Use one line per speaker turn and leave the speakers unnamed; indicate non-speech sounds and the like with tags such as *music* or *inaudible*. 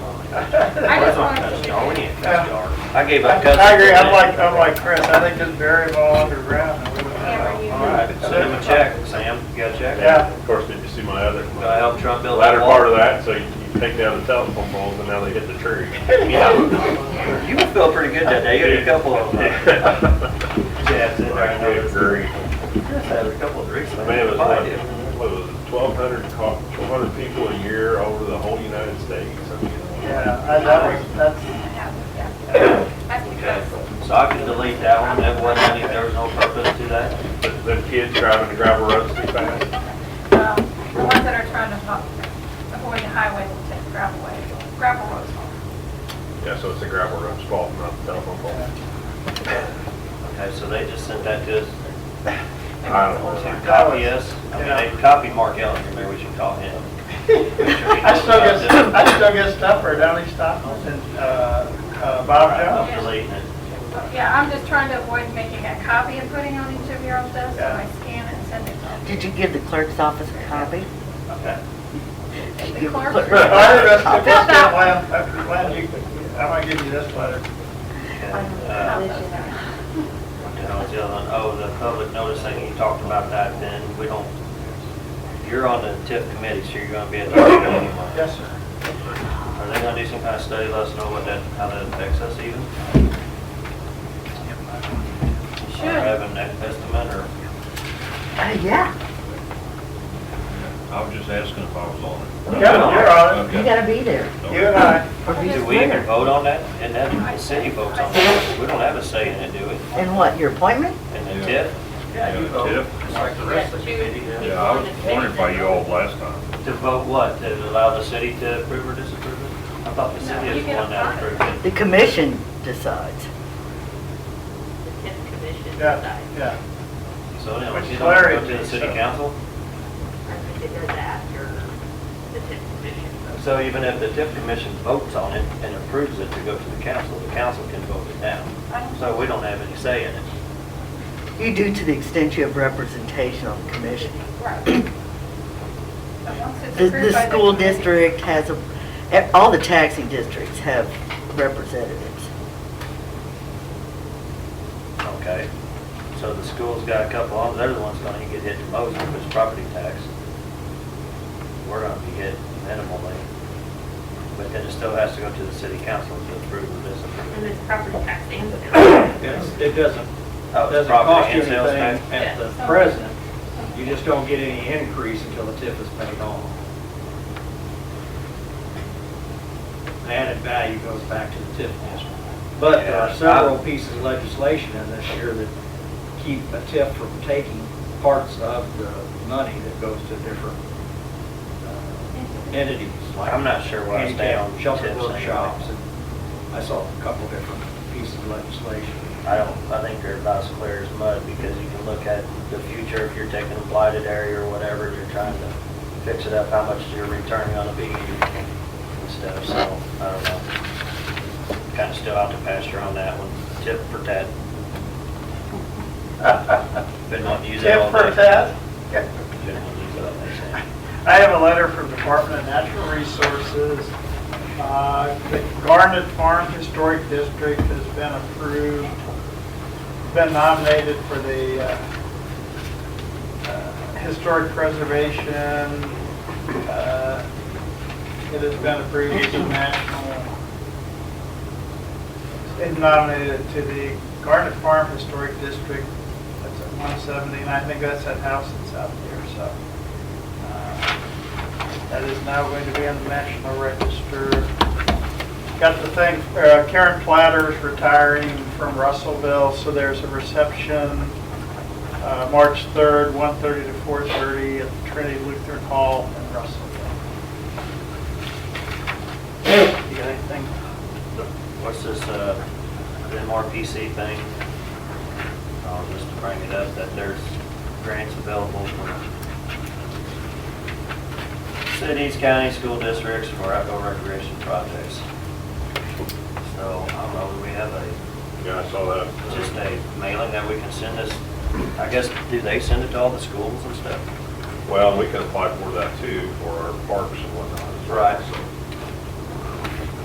I just wanted to-
That's dark, ain't it? That's dark.
I gave my cousin.
I agree, I'm like, oh, I'm like Chris, I think just bury them all underground. and we wouldn't
Hammer you.
know.
All right, send him a check, Sam, you got a check?
Yeah,
Of course, did you see my other,
Gonna help Trump build that
latter
wall?
part of that, so you you take down the telephone poles and now they hit the tree.
Yeah. You would feel pretty good that day, you had a couple of,
*laughs*
uh, jabs in there. I
I
know.
agree.
Chris had a couple of drinks.
I mean, it was
I
like,
did.
what was it, twelve hundred, twelve hundred people a year over the whole United States? I mean,
yeah, I- that was, that's,
Okay, so I can delete that one, that wasn't any, there was no purpose to that.
but Them kids driving the gravel roads too fast.
Well, the ones that are trying to ho- avoid the highway will take gravel way, gravel roads home.
Yeah, so it's the gravel road's fault, not the telephone pole.
Okay, so they just sent that to us
I don't know.
to copy us. I mean, they copied Mark Ellinger, maybe we should call
*laughs*
him.
I still get, *laughs* I still get stuff for Downey Stockholm and, uh, uh, Bob Jones.
I'm deleting it.
Yeah, I'm just trying to avoid making a copy and putting on each of your own desks, so I scan it and send it to
Did you give the clerk's office a copy? Uh,
Okay.
the clerk.
*laughs*
I think that's
I'll
the
fill
best
that
one, glad you, I'm gonna give you this letter.
And, uh, what the hell is the other one? Oh, the public notice thing, you talked about that, then we don't, you're on the TIP committee, so you're gonna be at the meeting anyway.
Yes, sir.
Are they gonna do some kind of study, let us know what that, how that affects us even? Or
Should,
have an estimate, or?
Uh, yeah,
I was just asking if I was on it.
Kevin, you're on
you gotta be there.
it, you and I,
or be
Do we even
there.
vote on that? And that, the city votes on it. We don't have a say in it, do we?
And what, your appointment?
And the tip,
Yeah, you vote.
Like the rest of the committee.
Yeah, I was appointed by you all last time.
to vote what? To allow the city to approve or disapprove it? I thought the city
No,
is
you
the
get
one that
appointed.
approved it.
The commission decides.
The TIF commission
yeah,
decides.
yeah.
So anyway,
Which
you
is
don't have to go
hilarious.
to the city council?
I think it does after the TIF commission.
So even if the TIF commission votes on it and approves it to go to the council, the council can vote it down. So we don't have any say in it.
You do to the extent you have representation on the commission.
right. But once it's
The,
approved by
the school
committee-
district has a, eh, all the taxing districts have representatives.
Okay. So the school's got a couple of, they're the ones gonna get hit the most with this property tax. We're gonna be hit minimally. But then it still has to go to the city council to approve or disapprove.
And it's property tax and *coughs* sales.
It's- It doesn't,
Oh, it's
doesn't
property
cost you
and sales
anything
tax.
at the present. You just don't get any increase until the tip is paid off. The added value goes back to the tip district. But there
Yeah, I-
are several pieces of legislation in this year that keep a tip from taking parts of the money that goes to different uh, entities. like
I'm not sure where I stand on
handicap Shelter
tips anyway.
workshops, and I saw a couple different pieces of legislation.
I don't, I think they're about as clear as mud, because you can look at the future, if you're taking a blighted area or whatever, you're trying to fix it up, how much you're returning on a B and stuff, so, I don't know. Kinda still out to pasture on that one, tip for tat. *laughs* Been wanting to use that
Tip
all
for
day.
Ted.
Been wanting to use that all day, Sam.
I have a letter from Department of Natural Resources. Uh, The Garnet Farm Historic District has been approved, been nominated for the uh, uh, Historic Preservation. Uh, It has been approved as a national, it nominated to the Garnet Farm Historic District. That's at 170, and I think that's that house that's out there, so. That is now going to be on the National Register. Got the thing, uh, Karen Platter's retiring from Russellville, so there's a reception, uh, March 3rd, 1:30 to 4:30 at the Trinity Lutheran Hall in Russellville. You got anything?
What's this, uh, the MRPC thing? Uh, just to bring it up, that there's grants available for cities, counties, school districts for outdoor recreation projects. So, I don't know, do we have a,
Yeah, I saw that.
just a mailing that we can send us? I guess, do they send it to all the schools and stuff?
Well, we can apply for that too, for our parks and whatnot. as well,
Right.
so.